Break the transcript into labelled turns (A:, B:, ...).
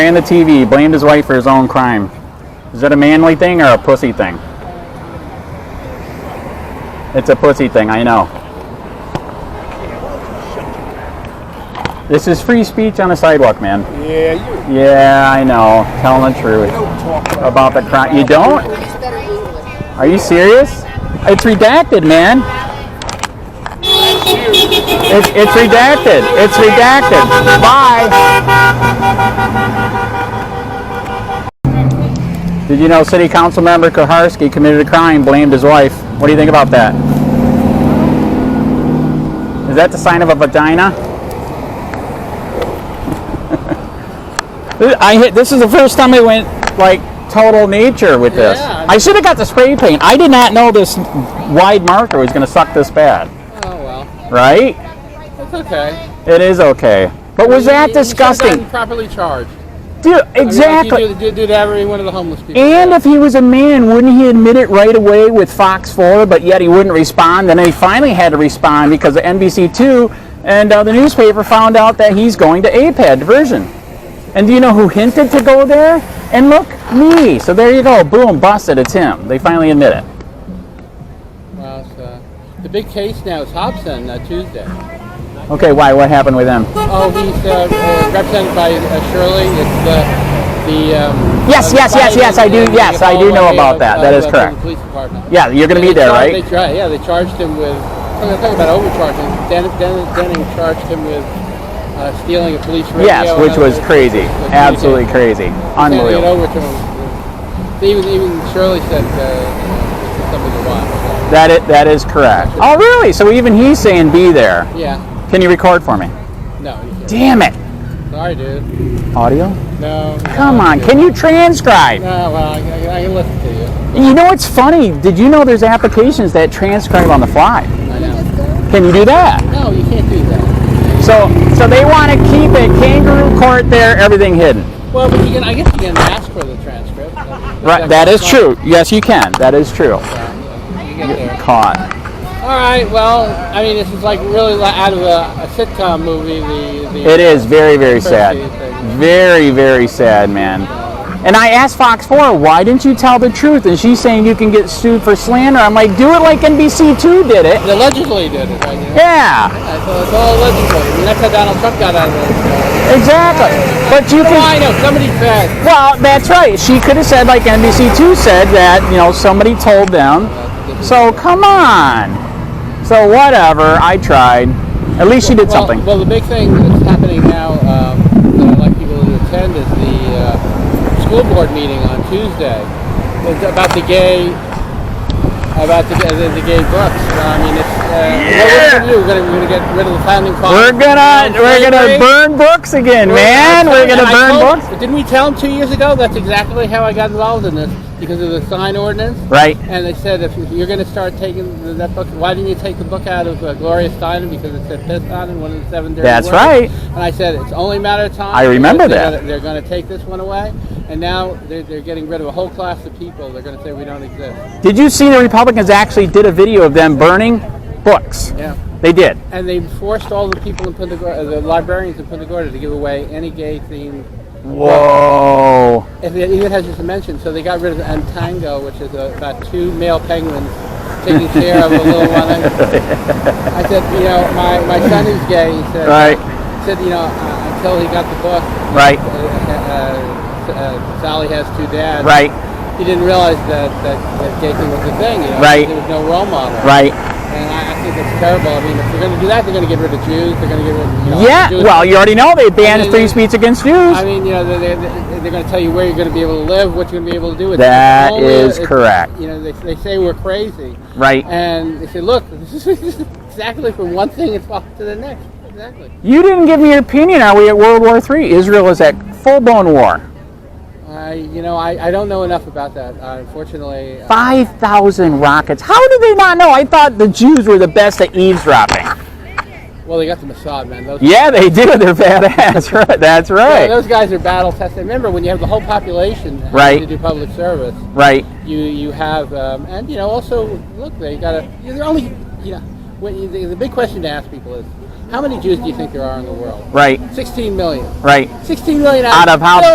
A: Ran the TV, blamed his wife for his own crime. Is that a manly thing or a pussy thing? It's a pussy thing, I know. This is free speech on the sidewalk, man.
B: Yeah, you
A: Yeah, I know. Telling the truth
B: don't talk about
A: about the crime. You don't? Are you serious? It's redacted, man. It's, it's redacted. It's redacted. Bye. Did you know City Council member Koharski committed a crime, blamed his wife? What do you think about that? Is that the sign of a vagina? I hit. This is the first time I went like total nature with this.
C: Yeah, I mean-
A: I should have got the spray paint. I did not know this wide marker was going to suck this bad.
C: Oh well,
A: Right?
C: that's okay.
A: It is okay. But was that
C: You- you should've gotten
A: disgusting?
C: Properly charged.
A: Dude,
C: I mean, like you
A: exactly.
C: do- do, do to every one of the homeless people.
A: And if he was a man, wouldn't he admit it right away with Fox 4, but yet he wouldn't respond? And then he finally had to respond because of NBC2 and uh, the newspaper found out that he's going to APAD diversion. And do you know who hinted to go there? And look, me. So there you go. Boom, busted. It's him. They finally admit it.
C: Well, it's, uh, the big case now is Hobson uh, Tuesday.
A: Okay, why? What happened with him?
C: Oh, he's uh, uh, represented by uh, Shirley. It's the the. Um,
A: Yes,
C: uh,
A: yes, yes, yes, I do-
C: fight in
A: yes,
C: the
A: I do know
C: hallway
A: about
C: of,
A: that.
C: uh,
A: That is
C: the
A: correct.
C: Cleveland Police Department.
A: Yeah, you're going to be
C: They
A: there,
C: char-
A: right?
C: They tried, yeah, they charged him with. Talk talk about overcharging. Den- Den- Denning charged him with uh, stealing a police radio.
A: Yes,
C: and
A: which
C: other-
A: was crazy.
C: Which
A: Absolutely
C: he did.
A: crazy.
C: Handing it
A: Unbelievable.
C: over to him. They Even even Shirley said uh, this is something to watch.
A: That it that is correct. Oh really? So even he's saying be there.
C: So, yeah.
A: Can you record for me?
C: No. You can't.
A: Damn it.
C: Sorry, dude.
A: Audio?
C: No.
A: Come on, can you transcribe?
C: No. Well, I, I, I can listen to you.
A: You know what's funny? Did you know there's applications that transcribe on the fly?
C: I know.
A: Can you do that?
C: No, you can't do that.
A: So so they want to keep it kangaroo court there, everything hidden.
C: Well, but you can. I guess you can ask for the transcript.
A: Right, that is true. Yes, you can. That is true.
C: You get there.
A: Caught.
C: All right. Well, I mean, this is like really li- out of a, a sitcom movie. The, the
A: It is very very sad. Very very sad, man. And I asked Fox 4, why didn't you tell the truth? And she's saying you can get sued for slander. I'm like, do it like NBC2 did it.
C: They allegedly did it. Right? You know?
A: Yeah,
C: Yeah, So it's all allegedly. I mean, that's how Donald Trump got out of it.
A: exactly. But you
C: Well,
A: can
C: I know somebody said.
A: Well, that's right. She could have said, like NBC2 said, that, you know, somebody told them. So come on. So whatever. I tried. At least she did
C: well,
A: something.
C: Well, the big thing that's happening now um, that I'd like people to attend is the uh, school board meeting on Tuesday It's about the gay about the, the, the gay books. I mean, it's, uh, what we're going to do, we're going to we're gonna get rid of the founding
A: We're
C: fathers.
A: gonna we're gonna
C: Slavery.
A: burn books again, man.
C: I
A: We're
C: told-
A: gonna
C: I
A: burn
C: told-
A: books.
C: Didn't we tell them two years ago? That's exactly how I got involved in this because of the sign ordinance.
A: Right.
C: And they said, if you're going to start taking the- that book, why didn't you take the book out of uh, Gloria Steinem because it said piss on it, one of the seven dirty
A: That's
C: words.
A: right.
C: And I said, it's only a matter of time.
A: I remember
C: They're
A: that.
C: gonna- They're going to take this one away, and now they're, they're getting rid of a whole class of people. They're going to say we don't exist.
A: Did you see the Republicans actually did a video of them burning books?
C: Yeah.
A: They did.
C: And they forced all the people in Punta Gorda, the librarians in Punta Gorda, to give away any gay-themed
A: Whoa.
C: If it even has just a mention, so they got rid of the Antango, which is uh about two male penguins taking care of a little one. I said, you know, my, my son is gay. He said,
A: Right.
C: he said, you know, uh, until he got the book,
A: Right.
C: uh, uh, uh, Sally has two dads.
A: Right.
C: He didn't realize that, that, that gay thing was a thing. You know,
A: Right.
C: There was no role model.
A: Right.
C: And I, I think that's terrible. I mean, if they're going to do that, they're going to get rid of Jews. They're going to get rid of you know,
A: Yeah.
C: Jews.
A: Well, you already know they
C: I
A: banned
C: mean,
A: free speech against Jews.
C: I mean, you know, they're, they're, they're going to tell you where you're going to be able to live, what you're going to be able to do. It's
A: That
C: only-
A: is correct.
C: You know, they, they say we're crazy.
A: Right.
C: And they say, look, this is exactly from one thing it's off to the next. Exactly.
A: You didn't give me your opinion. Are we at World War III? Israel is at full-blown war.
C: I, you know, I, I don't know enough about that. Uh, unfortunately, uh,
A: 5,000 rockets. How did they not know? I thought the Jews were the best at eavesdropping.
C: well, they got the Mossad, man. Those,
A: Yeah, they do. They're badass. Right. That's
C: Yeah,
A: right.
C: those guys are battle tested. Remember, when you have the whole population having
A: Right.
C: to do public service,
A: right.
C: you you have um, and you know also look they got to you're only you know when you, the, the big question to ask people is how many Jews do you think there are in the world?
A: Right.
C: 16 million.
A: Right.
C: 16 million
A: Out of how